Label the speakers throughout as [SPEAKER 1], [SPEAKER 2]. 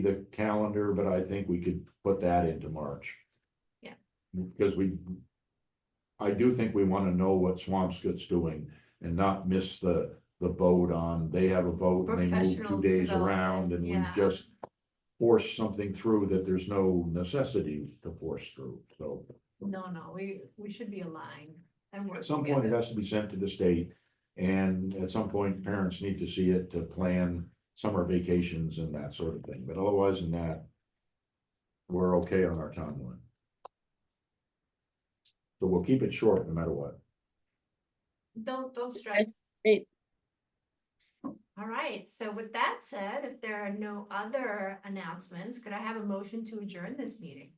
[SPEAKER 1] the calendar, but I think we could put that into March.
[SPEAKER 2] Yeah.
[SPEAKER 1] Because we, I do think we wanna know what Swampscott's doing and not miss the, the vote on, they have a vote and they move two
[SPEAKER 2] Professional
[SPEAKER 1] days
[SPEAKER 2] development,
[SPEAKER 1] around and we
[SPEAKER 2] yeah.
[SPEAKER 1] just force something through that there's no necessity to force through, so.
[SPEAKER 2] No, no, we, we should be aligned and work
[SPEAKER 1] At some point, it
[SPEAKER 2] together.
[SPEAKER 1] has to be sent to the state, and at some point, parents need to see it to plan summer vacations and that sort of thing, but otherwise than that. We're okay on our timeline. So we'll keep it short no matter what.
[SPEAKER 2] Don't, don't stress.
[SPEAKER 3] Great.
[SPEAKER 2] All right, so with that said, if there are no other announcements, could I have a motion to adjourn this meeting?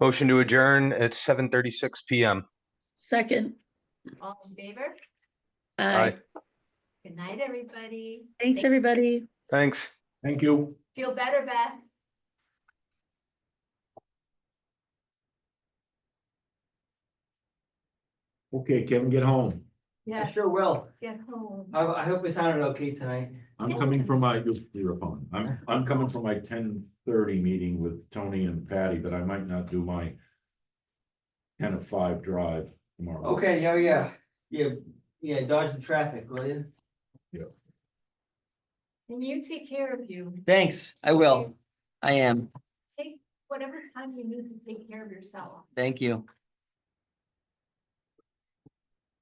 [SPEAKER 4] Motion to adjourn at seven thirty-six PM.
[SPEAKER 3] Second,
[SPEAKER 2] All in favor?
[SPEAKER 3] aye.
[SPEAKER 4] Aye.
[SPEAKER 2] Good night, everybody.
[SPEAKER 3] Thanks, everybody.
[SPEAKER 4] Thanks.
[SPEAKER 1] Thank you.
[SPEAKER 2] Feel better, Beth.
[SPEAKER 1] Okay, Kevin, get home.
[SPEAKER 2] Yeah,
[SPEAKER 5] Sure will.
[SPEAKER 2] get home.
[SPEAKER 5] I, I hope we sounded okay tonight.
[SPEAKER 1] I'm coming from my, you're a phone. I'm, I'm coming from my ten thirty meeting with Tony and Patty, but I might not do my ten of five drive tomorrow.
[SPEAKER 5] Okay, yeah, yeah, yeah, yeah, dodge the traffic, will you?
[SPEAKER 2] And you take care of you.
[SPEAKER 5] Thanks, I will. I am.
[SPEAKER 2] Take whatever time you need to take care of yourself.
[SPEAKER 5] Thank you.